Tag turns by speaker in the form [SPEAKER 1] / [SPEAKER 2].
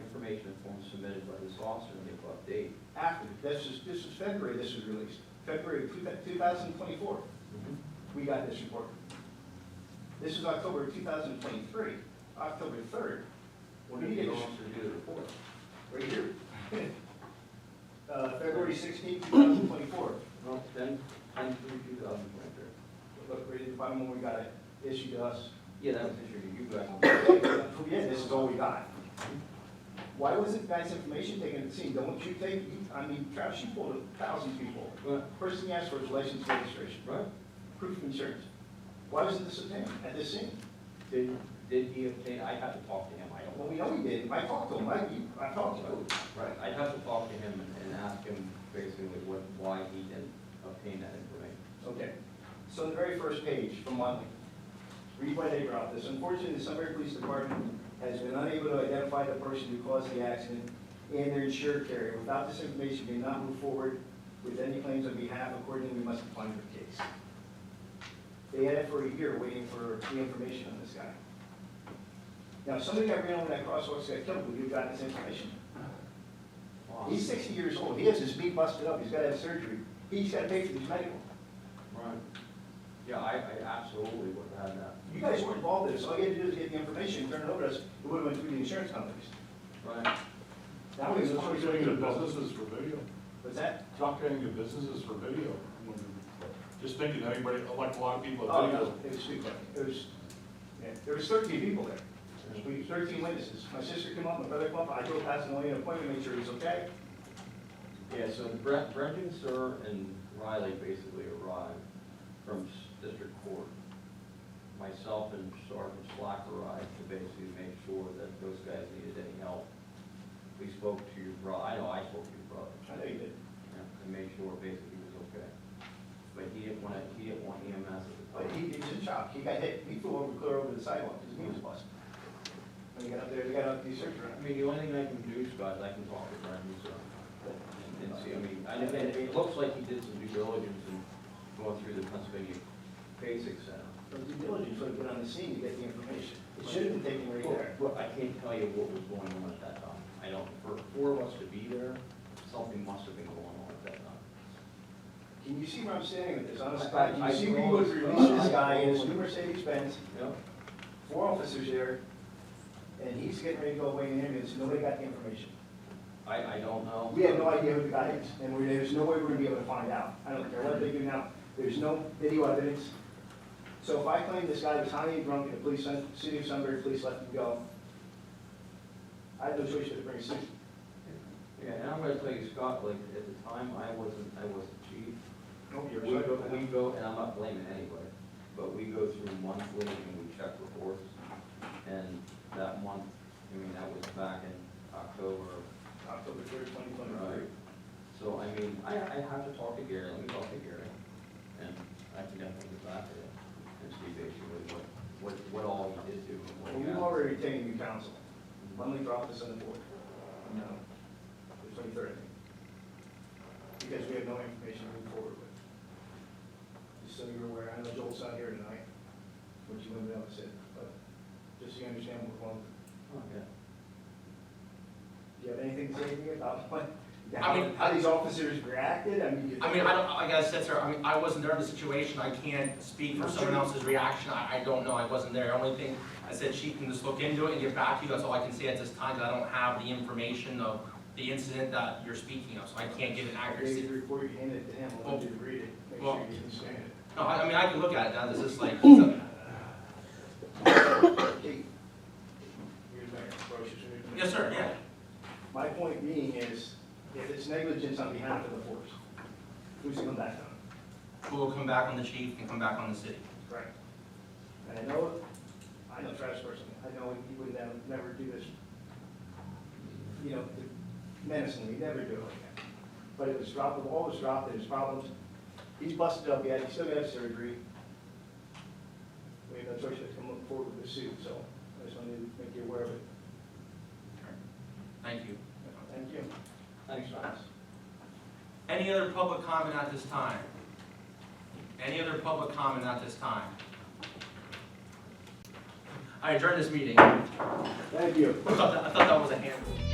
[SPEAKER 1] form submitted by this officer and give update.
[SPEAKER 2] after, this is, this is February this was released, February two thousand twenty-four,
[SPEAKER 1] Mm-hmm.
[SPEAKER 2] we got this report. This is October two thousand twenty-three, October third,
[SPEAKER 1] What did the officer do to report?
[SPEAKER 2] right here. Uh, February sixteenth, two thousand twenty-four,
[SPEAKER 1] Well, then, ten through two thousand twenty-three.
[SPEAKER 2] look, right at the bottom when we got it issued to us.
[SPEAKER 1] Yeah, that was issued to you guys.
[SPEAKER 2] Yeah, this is all we got. Why was it guys' information taken at the scene? Don't you take, you- I mean, Travis, you pulled a thousand people.
[SPEAKER 1] Right.
[SPEAKER 2] First thing you asked for is license registration,
[SPEAKER 1] Right?
[SPEAKER 2] proof of insurance. Why wasn't this obtained at this scene?
[SPEAKER 1] Did, did he obtain, I'd have to talk to him, I don't know.
[SPEAKER 2] Well, we know he did. I talked to him, I, you- I talked to him.
[SPEAKER 1] Right, I'd have to talk to him and- and ask him basically what, why he didn't obtain that information.
[SPEAKER 2] Okay, so the very first page from Watley, read my neighbor out this, unfortunately, the Sunbury Police Department has been unable to identify the person who caused the accident and their insured carrier. Without this information, we cannot move forward with any claims on behalf, accordingly, we must decline your case. They had it for a year waiting for the information on this guy. Now, if somebody that ran over that crosswalk got killed, would you have gotten this information? He's sixty years old, he has his knee busted up, he's gotta have surgery, he's gotta pay for his medical.
[SPEAKER 1] Right. Yeah, I, I absolutely would have had that.
[SPEAKER 2] You guys were involved in this, all you had to do is get the information, turn it over to us, it would have went through the insurance companies.
[SPEAKER 1] Right.
[SPEAKER 2] That was,
[SPEAKER 3] Doc getting the businesses for video.
[SPEAKER 2] was that?
[SPEAKER 3] Doc getting the businesses for video. Just thinking, everybody, like a lot of people,
[SPEAKER 2] Oh,
[SPEAKER 3] video.
[SPEAKER 2] no, it was too quick, it was, yeah, there was thirteen people there. We, thirteen witnesses, my sister came up, my brother came up, I drove past and only an appointment, made sure he was okay.
[SPEAKER 1] Yeah, so Brett, Brendan, Sir, and Riley basically arrived from s- district court. Myself and Sergeant Slack arrived to basically make sure that those guys needed any help. We spoke to your bro, I know I spoke to your brother,
[SPEAKER 2] I know you did.
[SPEAKER 1] you know, and made sure basically he was okay. But he didn't want, he didn't want EMS at the
[SPEAKER 2] But
[SPEAKER 1] time.
[SPEAKER 2] he, he was in shock, he got hit, he flew over, clear over the sidewalk, his knee was busted. When he got up there, he got up, he surgery.
[SPEAKER 1] I mean, the only thing I can do, Scott, is I can talk to Brendan, so, and see, I mean, I, and it looks like he did some due diligence and going through the Pennsylvania Basic Center.
[SPEAKER 2] But due diligence would have been on the scene to get the information, it should have been taken right
[SPEAKER 1] Well,
[SPEAKER 2] there.
[SPEAKER 1] well, I can't tell you what was going on at that time. I don't, for four of us to be there, something must have been going on at that time.
[SPEAKER 2] Can you see where I'm standing with this, honest
[SPEAKER 1] I-
[SPEAKER 2] guy? Can
[SPEAKER 1] I-
[SPEAKER 2] you see where
[SPEAKER 1] I-
[SPEAKER 2] you would release this
[SPEAKER 1] I-
[SPEAKER 2] guy in his new Mercedes Benz,
[SPEAKER 1] Yep.
[SPEAKER 2] four officers there, and he's getting ready to go away in an ambulance, nobody got the information.
[SPEAKER 1] I, I don't know.
[SPEAKER 2] We have no idea who the guy is, and we- there's no way we're gonna be able to find out. I don't care what they do now, there's no video evidence. So if I claim this guy was highly drunk and the police, sent- city of Sunbury police let him go, I have no choice but to bring a suit.
[SPEAKER 1] Yeah, and I'm gonna tell you, Scott, like, at the time, I wasn't, I wasn't chief.
[SPEAKER 2] Nope,
[SPEAKER 1] We go, we go, and I'm not blaming anybody, but we go through monthly and we check reports. And that month, I mean, that was back in October,
[SPEAKER 2] October third, twenty
[SPEAKER 1] Right.
[SPEAKER 2] twenty-three.
[SPEAKER 1] So, I mean, I, I have to talk to Gary, let me talk to Gary, and I can definitely get back to him and see basically what, what, what all he did do and what
[SPEAKER 2] Well,
[SPEAKER 1] he
[SPEAKER 2] we've
[SPEAKER 1] got.
[SPEAKER 2] already retained new counsel. When we drop this on the board, no, the twenty-third, because we have no information to move forward with. Just so you're aware, I know Joel's not here tonight, which you wouldn't know said, but just so you understand what we're going,
[SPEAKER 1] Oh, yeah.
[SPEAKER 2] do you have anything to say to me about what?
[SPEAKER 4] I mean-
[SPEAKER 2] How these officers reacted, I mean.
[SPEAKER 4] I mean, I don't, like I said, sir, I mean, I wasn't there in the situation, I can't speak for someone else's reaction, I, I don't know, I wasn't there. Only thing, I said she can just look into it and get back to you, that's all I can say at this time, 'cause I don't have the information of the incident that you're speaking of, so I can't give an
[SPEAKER 2] Read
[SPEAKER 4] accuracy.
[SPEAKER 2] the report, you handed it to him, I'll let you read it, make
[SPEAKER 4] Well-
[SPEAKER 2] sure you understand it.
[SPEAKER 4] No, I, I mean, I can look at it now, this is like, it's a-
[SPEAKER 2] Kate, here's my approach.
[SPEAKER 4] yes, sir, yeah.
[SPEAKER 2] My point being is, if it's negligence on behalf of the force, who's gonna back down?
[SPEAKER 4] We'll come back on the chief and come back on the city.
[SPEAKER 2] Correct. And I know, I know Travis personally, I know he would never, never do this, you know, menacingly, he'd never do it like that. But it was dropped, the ball was dropped, there's problems, he's busted up yet, he still got surgery. We have no choice but to come forward with a suit, so I just wanted to make you aware of it.
[SPEAKER 4] Thank you.
[SPEAKER 2] Thank you.
[SPEAKER 1] Thanks, Travis.
[SPEAKER 4] Any other public comment at this time? Any other public comment at this time? I adjourn this meeting.
[SPEAKER 2] Thank you.
[SPEAKER 4] I thought that, I thought that was a handful.